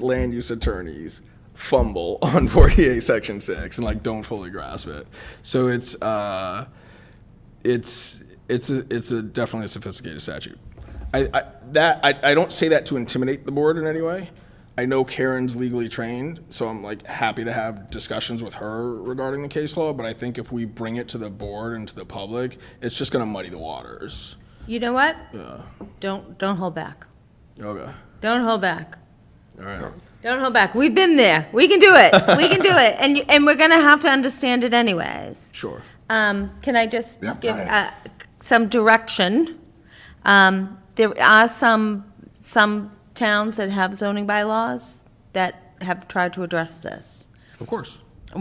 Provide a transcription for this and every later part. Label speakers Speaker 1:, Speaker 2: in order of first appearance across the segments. Speaker 1: land use attorneys fumble on 48 section 6 and like don't fully grasp it so it's uh it's it's a, it's a definitely a sophisticated statute i, I that I, I don't say that to intimidate the board in any way i know karen's legally trained so i'm like happy to have discussions with her regarding the case law but i think if we bring it to the board and to the public it's just going to muddy the waters
Speaker 2: You know what? Don't, don't hold back.
Speaker 1: okay
Speaker 2: Don't hold back.
Speaker 1: all right
Speaker 2: Don't hold back. We've been there. We can do it. We can do it. And, you- and we're going to have to understand it anyways.
Speaker 1: sure
Speaker 2: Um, can I just
Speaker 3: Yeah, go
Speaker 2: give uh,
Speaker 3: ahead.
Speaker 2: some direction? Um, there are some, some towns that have zoning bylaws that have tried to address this.
Speaker 1: of course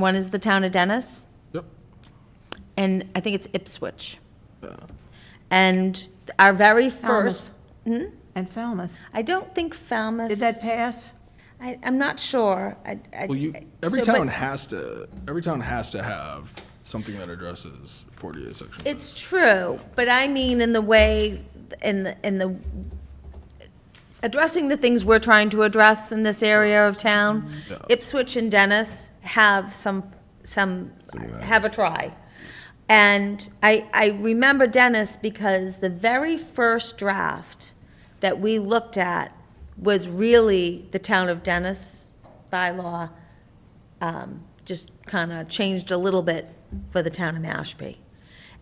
Speaker 2: One is the town of Dennis,
Speaker 1: yep
Speaker 2: and I think it's Ipswich. And our very first,
Speaker 4: And Falmouth.
Speaker 2: I don't think Falmouth.
Speaker 4: Did that pass?
Speaker 2: I, I'm not sure. I, I,
Speaker 1: Well, you,
Speaker 2: I-
Speaker 1: every
Speaker 2: so, but
Speaker 1: town has to, every town has to have something that addresses forty-eight section.
Speaker 2: It's true, but I mean in the way, in the, in the, addressing the things we're trying to address in this area of town.
Speaker 1: Mm,
Speaker 2: Ipswich and Dennis have some, some, have a try. And I, I remember Dennis because the very first draft that we looked at was really the town of Dennis bylaw um, just kind of changed a little bit for the town of Mashpee.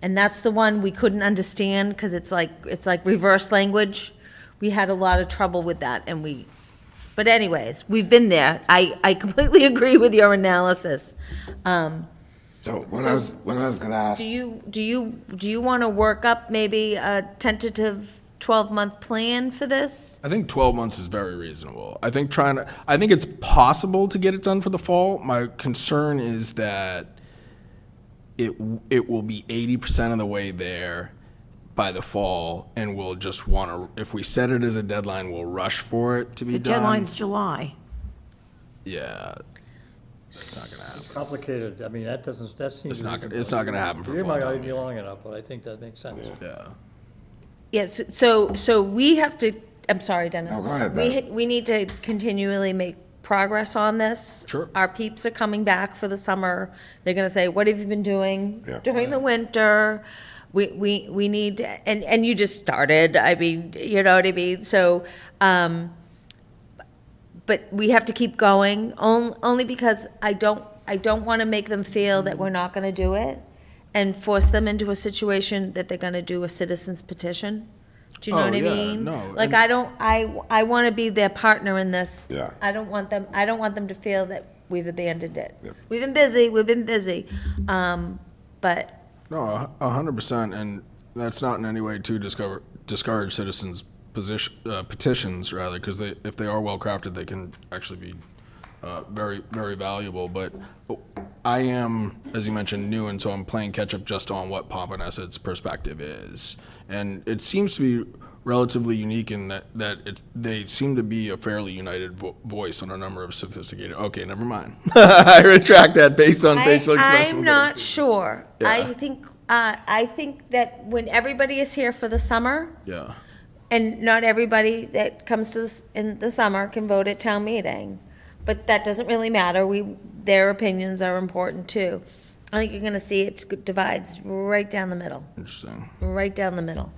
Speaker 2: And that's the one we couldn't understand because it's like, it's like reverse language. We had a lot of trouble with that and we, but anyways, we've been there. I, I completely agree with your analysis. Um,
Speaker 3: So what I was, what I was gonna ask,
Speaker 2: Do you, do you, do you want to work up maybe a tentative 12-month plan for this?
Speaker 1: I think twelve months is very reasonable. I think trying to, I think it's possible to get it done for the fall. My concern is that it, w- it will be eighty percent of the way there by the fall, and we'll just wanna, if we set it as a deadline, we'll rush for it to be
Speaker 4: The
Speaker 1: done.
Speaker 4: deadline's July.
Speaker 1: Yeah,
Speaker 5: complicated, I mean, that doesn't, that seems.
Speaker 1: it's not, gonna- it's not gonna happen for
Speaker 5: You're
Speaker 1: fall
Speaker 5: not
Speaker 1: town
Speaker 5: gonna be
Speaker 1: meeting.
Speaker 5: long enough, but I think that makes sense.
Speaker 1: Yeah.
Speaker 2: Yes, so, so we have to, I'm sorry, Dennis.
Speaker 3: No, go ahead,
Speaker 2: We, we need to continually make progress on this.
Speaker 1: Sure.
Speaker 2: Our peeps are coming back for the summer. They're gonna say, what have you been doing
Speaker 3: Yeah.
Speaker 2: during the winter? We, we, we need, and, and you just started, I mean, you know what I mean? So, um, but we have to keep going, on- only because I don't, I don't want to make them feel that we're not going to do it and force them into a situation that they're going to do a citizen's petition. Do you know
Speaker 1: Oh,
Speaker 2: what I
Speaker 1: yeah,
Speaker 2: mean?
Speaker 1: no,
Speaker 2: Like,
Speaker 1: and-
Speaker 2: I don't, I, I want to be their partner in this.
Speaker 3: Yeah.
Speaker 2: I don't want them, I don't want them to feel that we've abandoned it. We've been busy, we've been busy, um, but
Speaker 1: No, a- a hundred percent, and that's not in any way to discover, discourage citizens' position, uh, petitions, rather, because they, if they are well-crafted, they can actually be, uh, very, very valuable, but I am, as you mentioned, new, and so I'm playing catch-up just on what Pompanesset's perspective is. And it seems to be relatively unique in that, that it's, they seem to be a fairly united vo- voice on a number of sophisticated, okay, never mind. I retract that based on
Speaker 2: I,
Speaker 1: facial expressions.
Speaker 2: I'm
Speaker 1: that I've
Speaker 2: not
Speaker 1: seen.
Speaker 2: sure.
Speaker 1: Yeah.
Speaker 2: I think, uh, I think that when everybody is here for the summer,
Speaker 1: Yeah.
Speaker 2: and not everybody that comes to this in the summer can vote at town meeting. But that doesn't really matter. We, their opinions are important too. I think you're gonna see it divides right down the middle,
Speaker 1: Interesting.
Speaker 2: right down the middle.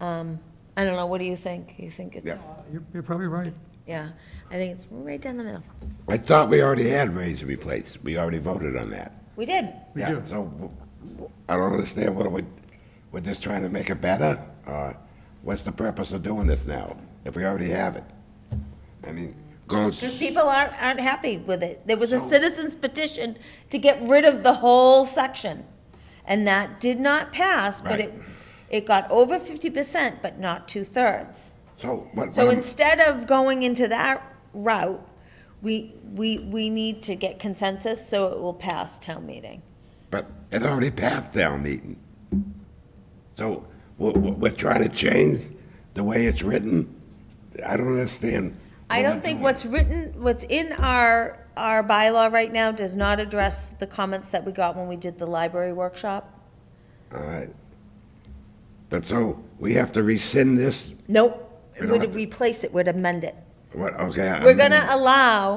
Speaker 2: Um, I don't know, what do you think? You think it's?
Speaker 3: Yeah.
Speaker 6: You're, you're probably right.
Speaker 2: Yeah, I think it's right down the middle.
Speaker 3: I thought we already had raise and replace, we already voted on that.
Speaker 2: We did.
Speaker 3: Yeah, so w- w- I don't understand what, we- we're just trying to make it better? Or what's the purpose of doing this now, if we already have it? I mean, going,
Speaker 2: Because
Speaker 3: s-
Speaker 2: people aren't, aren't happy with it. There was a citizen's petition to get rid of the whole section. And that did not pass, but it, it got over fifty percent, but not two-thirds.
Speaker 3: so what?
Speaker 2: So
Speaker 3: what I'm-
Speaker 2: instead of going into that route, we, we, we need to get consensus so it will pass town meeting.
Speaker 3: But it already passed town meeting. So we're, we're trying to change the way it's written? I don't understand.
Speaker 2: I don't think what's written, what's in our, our bylaw right now does not address the comments that we got when we did the library workshop.
Speaker 3: All right. But so we have to rescind this?
Speaker 2: Nope,
Speaker 3: We don't
Speaker 2: would
Speaker 3: have to-
Speaker 2: replace it, would amend it.
Speaker 3: What, okay. I'm
Speaker 2: We're
Speaker 3: reading.
Speaker 2: gonna allow